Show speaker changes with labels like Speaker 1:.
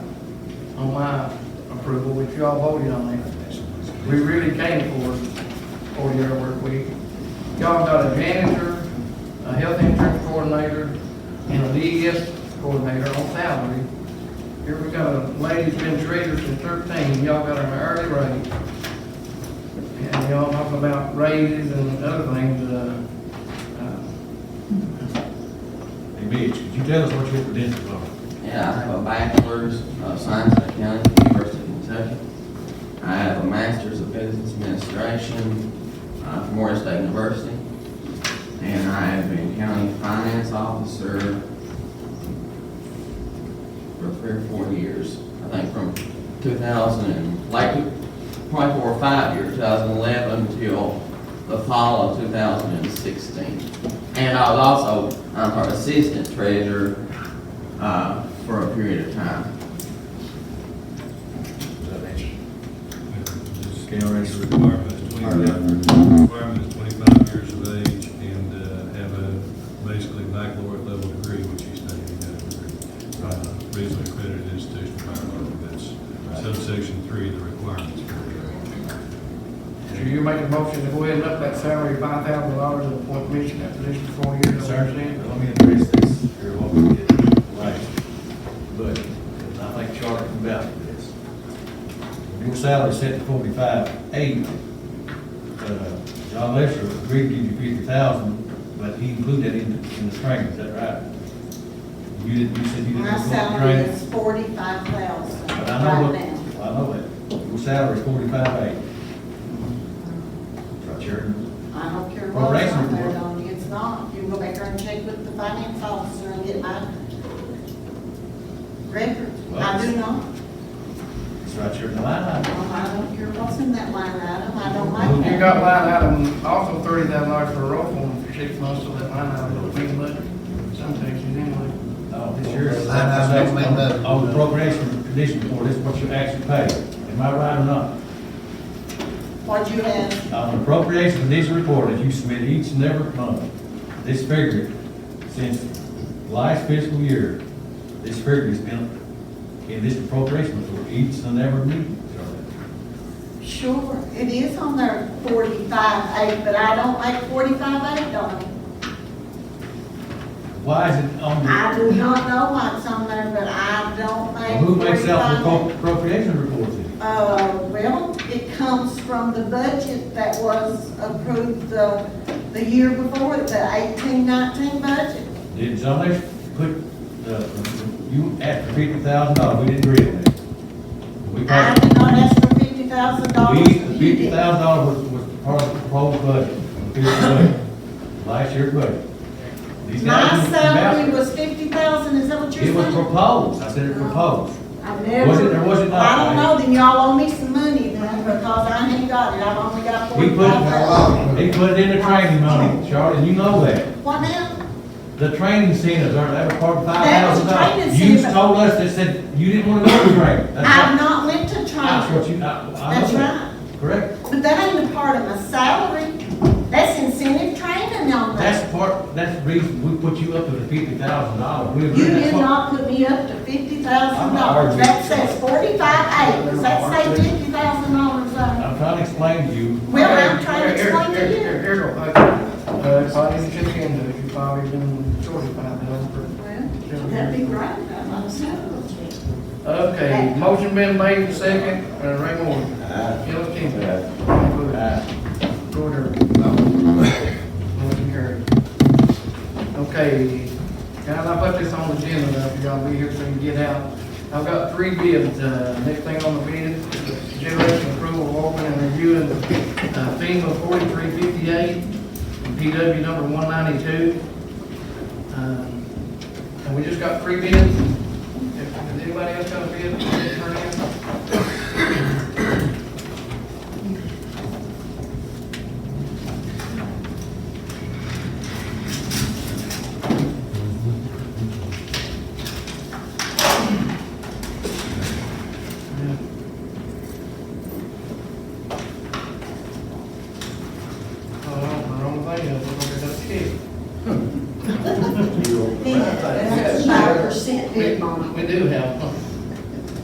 Speaker 1: on my approval, which y'all voted on it. We really came for forty-hour work week. Y'all got a janitor, a health insurance coordinator, and a DES coordinator on salary. Here we got a lady's been treasurer since thirteen, y'all got an hourly rate. And y'all talk about raises and other things, uh, uh,
Speaker 2: Hey Mitch, could you tell us what your credentials are?
Speaker 3: Yeah, I have a bachelor's of science and accounting from University of Kentucky. I have a master's of business administration uh, from Morgan State University. And I have been county finance officer for three or four years. I think from 2000, and like, probably four or five years, 2011 until the fall of 2016. And I was also, I'm our assistant treasurer uh, for a period of time.
Speaker 2: KRS requirements, twenty-five, requirement is twenty-five years of age and uh, have a basically baccalaureate level degree, which you studied in that degree. Uh, Reasonably accredited institution of higher learning, that's subsection three, of the requirements.
Speaker 1: so you're making a motion to go ahead and up that salary five thousand dollars and appoint Mitch in that position for four years.
Speaker 4: Sergeant, let me address this here what we did last budget, because I think Charlie can vouch for this. Your salary set to forty-five eight. Uh, John Lester agreed to give you fifty thousand, but he included that in the, in the training, is that right? You didn't, you said you didn't. include
Speaker 5: My
Speaker 4: the
Speaker 5: salary
Speaker 4: training.
Speaker 5: is forty-five thousand
Speaker 4: But I know
Speaker 5: right
Speaker 4: what,
Speaker 5: now.
Speaker 4: I know that. Your salary is forty-five eight. Right, Sharon?
Speaker 5: I don't care
Speaker 4: Well,
Speaker 5: what's
Speaker 4: raise
Speaker 5: on
Speaker 4: them.
Speaker 5: there, Donnie, it's not. You can go back there and check with the finance officer and get my record. I do not.
Speaker 4: It's right here in the line item.
Speaker 5: I don't care what's in that line item, I don't like that.
Speaker 1: You got line item, also thirty thousand dollars for a roll form for six months, so that line item will be much, some taxes anyway.
Speaker 4: No,
Speaker 6: It's
Speaker 4: it's
Speaker 6: yours.
Speaker 4: yours.
Speaker 6: Line item, make that-
Speaker 4: On the appropriation condition report, this is what you actually paid. Am I right or not?
Speaker 5: What you have,
Speaker 4: On the appropriation condition report that you submit each and every month, this figure, since last fiscal year, this figure has been in this appropriation report each and every meeting.
Speaker 5: sure, it is on there forty-five eight, but I don't like forty-five eight, Donnie.
Speaker 4: Why is it on
Speaker 5: I
Speaker 4: the,
Speaker 5: do not know what's on there, but I don't like.
Speaker 4: Well, who makes out the
Speaker 5: 45.
Speaker 4: appro- appropriation report then?
Speaker 5: Uh, well, it comes from the budget that was approved the, the year before, the eighteen nineteen budget.
Speaker 4: Did John Lester put, the you asked for fifty thousand dollars, we didn't agree on that. We
Speaker 5: I
Speaker 4: passed-
Speaker 5: did not ask for fifty thousand dollars.
Speaker 4: We, the fifty thousand dollars was, was part of the proposed budget, the year's budget, last year's budget. These
Speaker 5: My
Speaker 4: guys-
Speaker 5: salary was fifty thousand, is that what you're
Speaker 4: It was
Speaker 5: saying?
Speaker 4: proposed, I said it proposed.
Speaker 5: I never.
Speaker 4: Was it or was it not?
Speaker 5: I don't know, then y'all owe me some money then, because I ain't got it, I've only got
Speaker 4: He
Speaker 5: forty
Speaker 4: put,
Speaker 5: thousand.
Speaker 4: it- he put it in the training money, Charlie, and you know that.
Speaker 5: What now?
Speaker 4: The training centers are, that was part of five
Speaker 5: That was
Speaker 4: thousand
Speaker 5: a
Speaker 4: dollars.
Speaker 5: training
Speaker 4: You
Speaker 5: center.
Speaker 4: told us that said you didn't wanna go to training. That's
Speaker 5: I've
Speaker 4: what-
Speaker 5: not went to
Speaker 4: That's
Speaker 5: training,
Speaker 4: what you, I, I know
Speaker 5: that's
Speaker 4: that,
Speaker 5: right,
Speaker 4: correct?
Speaker 5: but that ain't a part of my salary, that's incentive training on that.
Speaker 4: That's part, that's the reason we put you up to the fifty thousand dollars. We agree
Speaker 5: You
Speaker 4: that's
Speaker 5: did
Speaker 4: what-
Speaker 5: not put me up to fifty thousand
Speaker 4: I'm not
Speaker 5: dollars.
Speaker 4: arguing.
Speaker 5: That says forty-five acres. That say fifty thousand dollars on it.
Speaker 4: I'm trying to explain to you,
Speaker 5: Well, I'm trying to explain
Speaker 1: Here,
Speaker 5: to
Speaker 1: here,
Speaker 5: you.
Speaker 1: here, here, go. Uh, if I didn't check into it, you probably been shorted by that.
Speaker 5: Well, that'd be great. I'm not saying.
Speaker 1: Okay, motion been made and second, uh, Ray Moore. Ellis Cantor. Go there. Motion carried. Okay, guys, I put this on the agenda, now, if y'all be here so you can get out. I've got three bids, uh, next thing on the bid, is generation approval of opening and reviewing uh, FEMA forty-three fifty-eight, and PW number one ninety-two. Um, And we just got three bids. If- Has anybody else got a bid? Turn in. Oh, the wrong thing, I was looking at that kid.
Speaker 5: That's a five percent bid on
Speaker 1: We do have.